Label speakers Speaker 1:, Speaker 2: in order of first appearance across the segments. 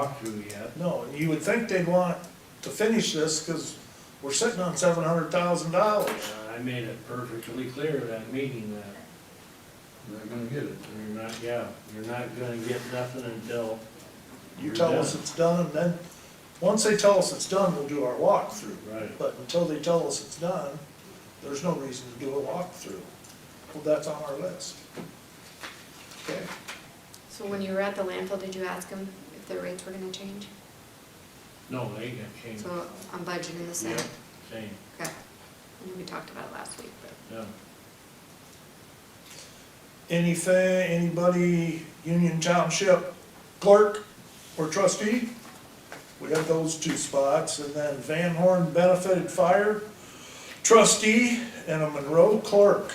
Speaker 1: walkthrough yet.
Speaker 2: No, you would think they'd want to finish this, cause we're sitting on seven hundred thousand dollars.
Speaker 1: Uh, I made it perfectly clear at that meeting that
Speaker 3: Not gonna get it.
Speaker 1: you're not, yeah, you're not gonna get nothing until.
Speaker 2: You
Speaker 1: you're
Speaker 2: tell
Speaker 1: done.
Speaker 2: us it's done, and then, once they tell us it's done, we'll do our walkthrough.
Speaker 1: Right,
Speaker 2: But until they tell us it's done, there's no reason to do a walkthrough. Well, that's on our list. Okay,
Speaker 4: So when you were at the landfill, did you ask them if their rates were gonna change?
Speaker 1: no, they got changed.
Speaker 4: So I'm budgeting the same,
Speaker 1: Mm-hmm. Yeah, Same,
Speaker 4: okay. I know we talked about it last week, but
Speaker 1: yeah.
Speaker 2: anything, anybody, Union Township clerk or trustee? We have those two spots, and then Van Horn benefited fire trustee and a Monroe clerk.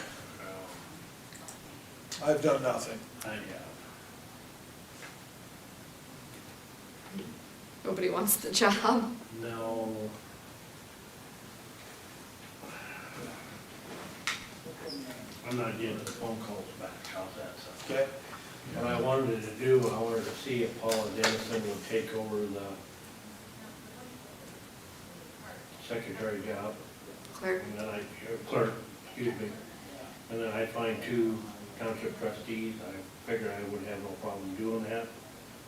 Speaker 2: I've done nothing.
Speaker 1: I, yeah,
Speaker 4: nobody wants the job.
Speaker 1: no. I'm not getting the phone calls back, how's that sound?
Speaker 2: Okay.
Speaker 1: What I wanted to do, I wanted to see if Paula Dennison would take over the secretary job,
Speaker 4: Clerk,
Speaker 1: and then I, or clerk, excuse me. And then I find two township trustees, I figure I would have no problem doing that.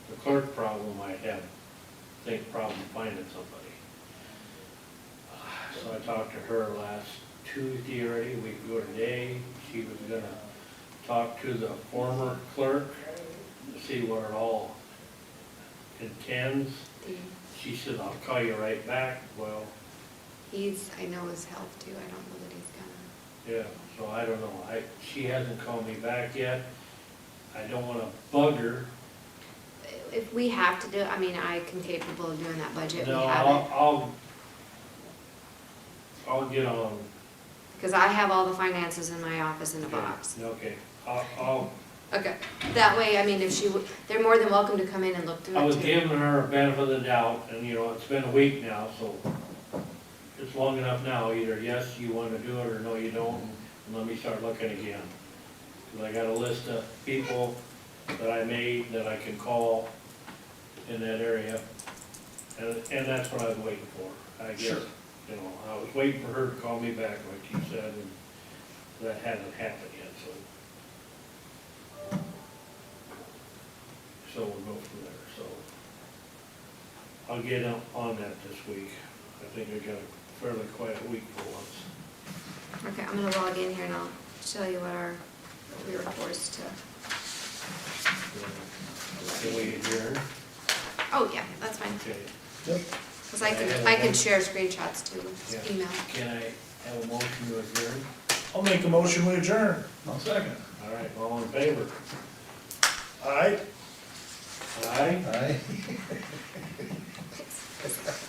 Speaker 1: The clerk problem, I have, think problem finding somebody. So I talked to her last Tuesday already, we could go today, she was gonna talk to the former clerk, to see where it all intends.
Speaker 4: the,
Speaker 1: She said, I'll call you right back, well,
Speaker 4: he's, I know his health too, I don't know that he's gonna.
Speaker 1: Yeah, so I don't know, I, she hasn't called me back yet. I don't wanna bug her.
Speaker 4: If we have to do, I mean, I can capable of doing that budget, we
Speaker 1: No, I'll,
Speaker 4: haven't.
Speaker 1: I'll, I'll get on.
Speaker 4: Because I have all the finances in my office in a box.
Speaker 1: Okay, I'll, I'll,
Speaker 4: Okay, that way, I mean, if she, would, they're more than welcome to come in and look through
Speaker 1: I was
Speaker 4: it too.
Speaker 1: giving her a benefit of the doubt, and you know, it's been a week now, so it's long enough now, either yes, you wanna do it, or no, you don't, and let me start looking again. 'Cause I got a list of people that I made that I can call in that area, and, and that's what I was waiting for, I guess.
Speaker 2: Sure.
Speaker 1: You know, I was waiting for her to call me back, like she said, and that hasn't happened yet, so. So we'll go from there, so. I'll get on- on that this week. I think I got a fairly quiet week for once.
Speaker 4: Okay, I'm gonna log in here and I'll show you what our, what we were forced to.
Speaker 1: Can we adjourn?
Speaker 4: Oh, yeah, that's fine,
Speaker 1: Okay,
Speaker 2: Yep.
Speaker 4: because I can, I can share screenshots too, just
Speaker 1: Yeah.
Speaker 4: email.
Speaker 1: can I have a motion to adjourn?
Speaker 2: I'll make a motion, we adjourn.
Speaker 3: I'll second.
Speaker 1: All right, all in favor?
Speaker 2: All right?
Speaker 1: Aye?
Speaker 3: Aye.